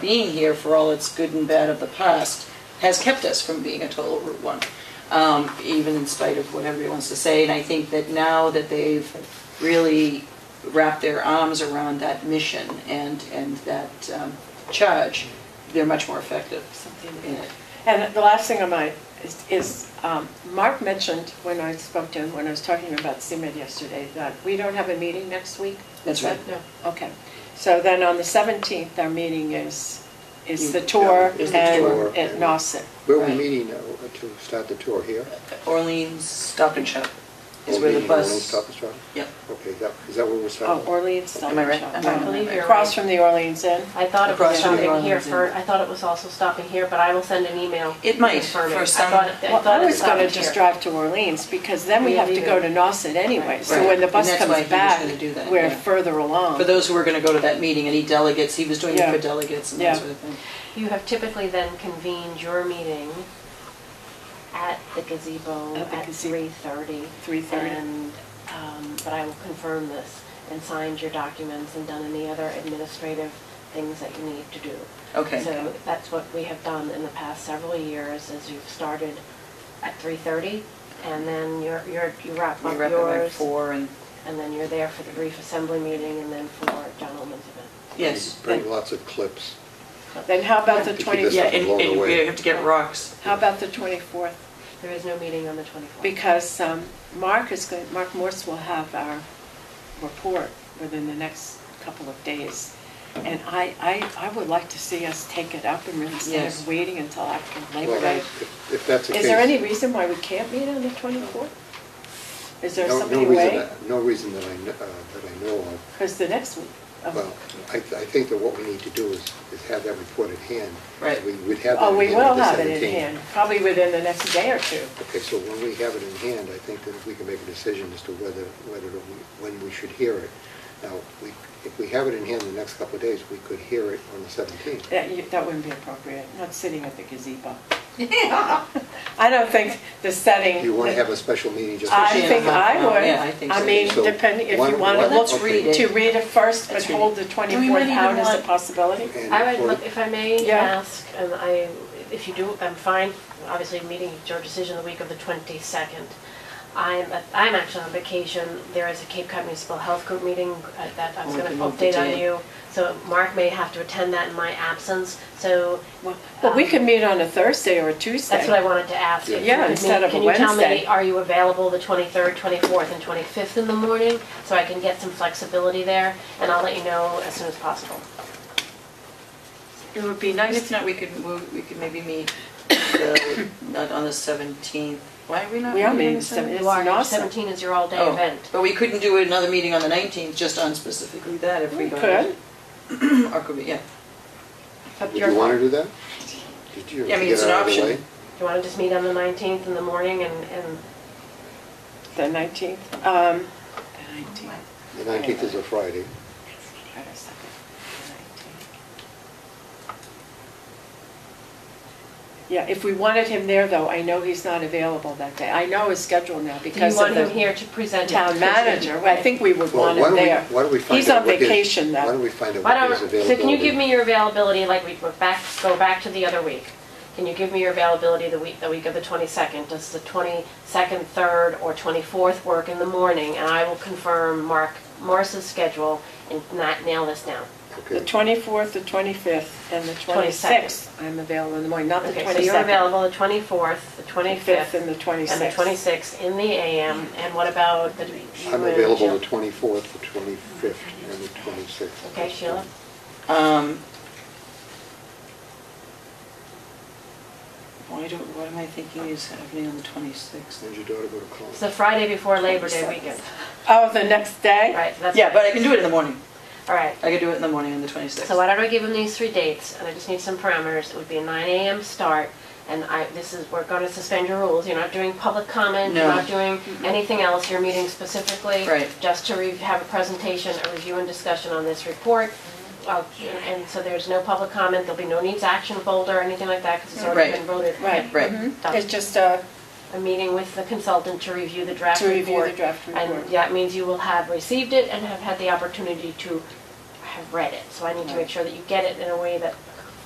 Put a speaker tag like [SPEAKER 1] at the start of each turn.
[SPEAKER 1] being here for all its good and bad of the past has kept us from being a total Route One, um, even in spite of what everybody wants to say. And I think that now that they've really wrapped their arms around that mission and, and that um, charge, they're much more effective in it.
[SPEAKER 2] And the last thing on my, is- is, um, Mark mentioned when I spoke to him, when I was talking to him about CMed yesterday, that we don't have a meeting next week?
[SPEAKER 1] That's
[SPEAKER 2] Is that-
[SPEAKER 1] right.
[SPEAKER 2] No, okay. So then on the 17th, our meeting is, is the tour
[SPEAKER 1] Mm. Is the
[SPEAKER 2] and
[SPEAKER 1] tour.
[SPEAKER 2] at Nauset.
[SPEAKER 3] Where are we
[SPEAKER 1] Right.
[SPEAKER 3] meeting uh, to start the tour here?
[SPEAKER 1] Orleans Stop and Shop is where
[SPEAKER 3] Or
[SPEAKER 1] the
[SPEAKER 3] meeting, or
[SPEAKER 1] bus.
[SPEAKER 3] Stop and Shop?
[SPEAKER 1] Yep.
[SPEAKER 3] Okay, is that, is that where we're
[SPEAKER 2] Oh,
[SPEAKER 3] starting?
[SPEAKER 2] Orleans,
[SPEAKER 1] Am I right?
[SPEAKER 2] Dunwich.
[SPEAKER 1] Am I-
[SPEAKER 4] believe you're
[SPEAKER 2] Across
[SPEAKER 4] right.
[SPEAKER 2] from the Orleans Inn.
[SPEAKER 4] I thought it was
[SPEAKER 1] Across from the
[SPEAKER 4] stopping here
[SPEAKER 1] Rollins
[SPEAKER 4] for,
[SPEAKER 1] Inn.
[SPEAKER 4] I thought it was also stopping here, but I will send an email.
[SPEAKER 1] It might,
[SPEAKER 4] confirming.
[SPEAKER 1] for
[SPEAKER 4] I
[SPEAKER 1] some-
[SPEAKER 4] thought it- I
[SPEAKER 2] Well,
[SPEAKER 4] thought
[SPEAKER 2] I
[SPEAKER 4] it
[SPEAKER 2] was gonna
[SPEAKER 4] stopped
[SPEAKER 2] just
[SPEAKER 4] here.
[SPEAKER 2] drive to Orleans, because then we
[SPEAKER 4] Yeah,
[SPEAKER 2] have to
[SPEAKER 4] we
[SPEAKER 2] go
[SPEAKER 4] do.
[SPEAKER 2] to Nauset anyway. So
[SPEAKER 1] Right.
[SPEAKER 2] when the
[SPEAKER 1] And
[SPEAKER 2] bus
[SPEAKER 1] that's why he
[SPEAKER 2] comes
[SPEAKER 1] was
[SPEAKER 2] back,
[SPEAKER 1] gonna do that,
[SPEAKER 2] we're
[SPEAKER 1] yeah.
[SPEAKER 2] further along.
[SPEAKER 1] For those who were going to go to that meeting, any delegates, he was doing it
[SPEAKER 2] Yeah.
[SPEAKER 1] for delegates and
[SPEAKER 2] Yeah.
[SPEAKER 1] that sort of thing.
[SPEAKER 4] You have typically then convened your meeting at the gazebo
[SPEAKER 2] At the
[SPEAKER 4] at
[SPEAKER 2] gazebo.
[SPEAKER 4] three thirty.
[SPEAKER 2] 3:30.
[SPEAKER 4] And, um, but I will confirm this and signed your documents and done any other administrative things that you need to do.
[SPEAKER 1] Okay.
[SPEAKER 4] So that's what we have done in the past several years, is you've started at three thirty and then you're, you're, you wrap
[SPEAKER 1] We
[SPEAKER 4] up
[SPEAKER 1] wrap it by
[SPEAKER 4] yours.
[SPEAKER 1] four and,
[SPEAKER 4] And then you're there for the brief assembly meeting and then for John Olman's event.
[SPEAKER 1] yes.
[SPEAKER 3] Bring lots of clips.
[SPEAKER 2] Then how about the
[SPEAKER 3] Keep it
[SPEAKER 2] 20th?
[SPEAKER 1] Yeah, and,
[SPEAKER 3] Along the
[SPEAKER 1] and we
[SPEAKER 3] way.
[SPEAKER 1] have to get rocks.
[SPEAKER 2] How about the 24th?
[SPEAKER 4] There is no meeting on the 24th.
[SPEAKER 2] Because um, Mark is going, Mark Morse will have our report within the next couple of days. And I, I, I would like to see us take it up and really instead
[SPEAKER 1] Yes.
[SPEAKER 2] of waiting until after Labor
[SPEAKER 3] Well,
[SPEAKER 2] Day.
[SPEAKER 3] if- If that's the case.
[SPEAKER 2] Is there any reason why we can't meet on the 24th? Is there
[SPEAKER 3] no- no
[SPEAKER 2] somebody
[SPEAKER 3] reason
[SPEAKER 2] away?
[SPEAKER 3] that- No reason that I, kn- uh, that I know of.
[SPEAKER 2] Because the next week, um,
[SPEAKER 3] Well, I, I think that what we need to do is, is have that report at hand.
[SPEAKER 1] Right.
[SPEAKER 3] We would have that.
[SPEAKER 2] oh, we
[SPEAKER 3] at hand on
[SPEAKER 2] will
[SPEAKER 3] the
[SPEAKER 2] have it
[SPEAKER 3] 17th.
[SPEAKER 2] in hand, probably within the next day or two.
[SPEAKER 3] Okay, so when we have it in hand, I think that we can make a decision as to whether, whether, we- when we should hear it. Now, we, if we have it in hand the next couple of days, we could hear it on the 17th.
[SPEAKER 2] That, you- that wouldn't be appropriate, not sitting at the gazebo. I don't think the setting.
[SPEAKER 3] You want to have a special meeting just for
[SPEAKER 2] I
[SPEAKER 1] Yeah,
[SPEAKER 2] think
[SPEAKER 1] I-
[SPEAKER 2] I would.
[SPEAKER 1] yeah, I think so.
[SPEAKER 2] mean,
[SPEAKER 3] So,
[SPEAKER 2] depending, if
[SPEAKER 3] why-
[SPEAKER 2] you want to
[SPEAKER 3] why-
[SPEAKER 2] look
[SPEAKER 1] Let's read it.
[SPEAKER 2] to read it first, but
[SPEAKER 1] Let's read
[SPEAKER 2] hold the
[SPEAKER 4] And we might
[SPEAKER 2] 24th out
[SPEAKER 4] even
[SPEAKER 2] as a
[SPEAKER 4] want-
[SPEAKER 2] possibility.
[SPEAKER 3] And
[SPEAKER 4] I would,
[SPEAKER 3] for-
[SPEAKER 4] look- if I may
[SPEAKER 2] Yeah.
[SPEAKER 4] ask, and I, if you do, I'm fine, obviously meeting your decision the week of the 22nd. I'm, I'm actually on vacation, there is a Cape Cod Municipal Health Group meeting uh, that I was
[SPEAKER 1] Oh, we
[SPEAKER 4] going to
[SPEAKER 1] can move the
[SPEAKER 4] update on
[SPEAKER 1] date.
[SPEAKER 4] you. So Mark may have to attend that in my absence, so
[SPEAKER 2] Well, we could meet on a Thursday or a Tuesday.
[SPEAKER 4] That's what I wanted to ask. if you
[SPEAKER 2] Yeah,
[SPEAKER 4] could
[SPEAKER 2] instead of
[SPEAKER 4] meet-
[SPEAKER 2] a
[SPEAKER 4] Can you tell
[SPEAKER 2] Wednesday.
[SPEAKER 4] me, are you available the 23rd, 24th, and 25th in the morning? So I can get some flexibility there, and I'll let you know as soon as possible.
[SPEAKER 2] It would be
[SPEAKER 1] And
[SPEAKER 2] nice,
[SPEAKER 1] if not, we could, move- we could maybe meet, the- not on the 17th. Why are we not
[SPEAKER 2] We are
[SPEAKER 1] meeting on
[SPEAKER 2] meeting
[SPEAKER 1] the 17th?
[SPEAKER 2] It's
[SPEAKER 4] You are, your
[SPEAKER 2] awesome.
[SPEAKER 4] 17 is your all-day
[SPEAKER 1] Oh,
[SPEAKER 4] event.
[SPEAKER 1] But we couldn't do another meeting on the 19th, just on specifically that if we
[SPEAKER 2] we
[SPEAKER 1] got
[SPEAKER 2] could.
[SPEAKER 1] it. Or could we, yeah.
[SPEAKER 4] But
[SPEAKER 3] Would
[SPEAKER 4] your-
[SPEAKER 3] you want to do that? Did you
[SPEAKER 1] Yeah, I mean,
[SPEAKER 3] get
[SPEAKER 1] it's an
[SPEAKER 3] out of the
[SPEAKER 1] option.
[SPEAKER 3] way?
[SPEAKER 4] You want to just meet on the 19th in the morning and, and
[SPEAKER 2] The 19th, um, the 19th.
[SPEAKER 3] The 19th is a Friday.
[SPEAKER 2] Wait a second. The 19th. Yeah, if we wanted him there, though, I know he's not available that day. I know his schedule now
[SPEAKER 4] do you
[SPEAKER 2] because of
[SPEAKER 4] want
[SPEAKER 2] the
[SPEAKER 4] him here to present? it?
[SPEAKER 2] town manager. I think we would
[SPEAKER 3] Well,
[SPEAKER 2] want
[SPEAKER 3] why
[SPEAKER 2] him
[SPEAKER 3] don't we-
[SPEAKER 2] there.
[SPEAKER 3] Why don't we find out?
[SPEAKER 2] He's on
[SPEAKER 3] what his-
[SPEAKER 2] vacation,
[SPEAKER 3] Why
[SPEAKER 2] though.
[SPEAKER 3] don't we find out
[SPEAKER 4] Why
[SPEAKER 3] what
[SPEAKER 4] don't,
[SPEAKER 3] his
[SPEAKER 4] so
[SPEAKER 3] availability?
[SPEAKER 4] can you give me your availability, like we, we're back, go back to the other week? Can you give me your availability the week, the week of the 22nd? Does the 22nd, 3rd, or 24th work in the morning? And I will confirm Mark Morris's schedule and not nail this down.
[SPEAKER 2] The
[SPEAKER 3] Okay,
[SPEAKER 2] 24th, the 25th, and the
[SPEAKER 4] 22nd.
[SPEAKER 2] 26th. I'm available in the morning, not the
[SPEAKER 4] Okay, so you're
[SPEAKER 2] 22nd.
[SPEAKER 4] available the 24th, the
[SPEAKER 2] 25th
[SPEAKER 4] 25th,
[SPEAKER 2] and the
[SPEAKER 4] and the
[SPEAKER 2] 26th.
[SPEAKER 4] 26th in the AM, and what about the?
[SPEAKER 3] I'm available the 24th, the 25th, and the 26th.
[SPEAKER 4] Okay, Sheila?
[SPEAKER 1] Um, Why do, what am I thinking is happening on the 26th?
[SPEAKER 3] Send your daughter go to college.
[SPEAKER 4] It's the Friday before Labor Day weekend,
[SPEAKER 2] Oh, the next day?
[SPEAKER 4] right? That's
[SPEAKER 1] Yeah, but I can do it in the morning.
[SPEAKER 4] All right.
[SPEAKER 1] I could do it in the morning on the 26th.
[SPEAKER 4] So why don't I give them these three dates, and I just need some parameters, it would be a nine AM start, and I, this is, we're gonna suspend your rules, you're not doing public comment, you're
[SPEAKER 1] No.
[SPEAKER 4] not doing anything else, you're meeting specifically
[SPEAKER 1] Right.
[SPEAKER 4] just to re- have a presentation, a review and discussion on this report, Uh, and so there's no public comment, there'll be no needs action folder or anything like that, because it's already
[SPEAKER 1] Right.
[SPEAKER 4] been voted.
[SPEAKER 2] Right.
[SPEAKER 1] Right.
[SPEAKER 4] Mm-hmm. Done.
[SPEAKER 2] It's just uh,
[SPEAKER 4] A meeting with the consultant to review the draft
[SPEAKER 2] to
[SPEAKER 4] report.
[SPEAKER 2] review the draft
[SPEAKER 4] And
[SPEAKER 2] report.
[SPEAKER 4] that means you will have received it and have had the opportunity to have read it. So I need to make sure that you get it in a way that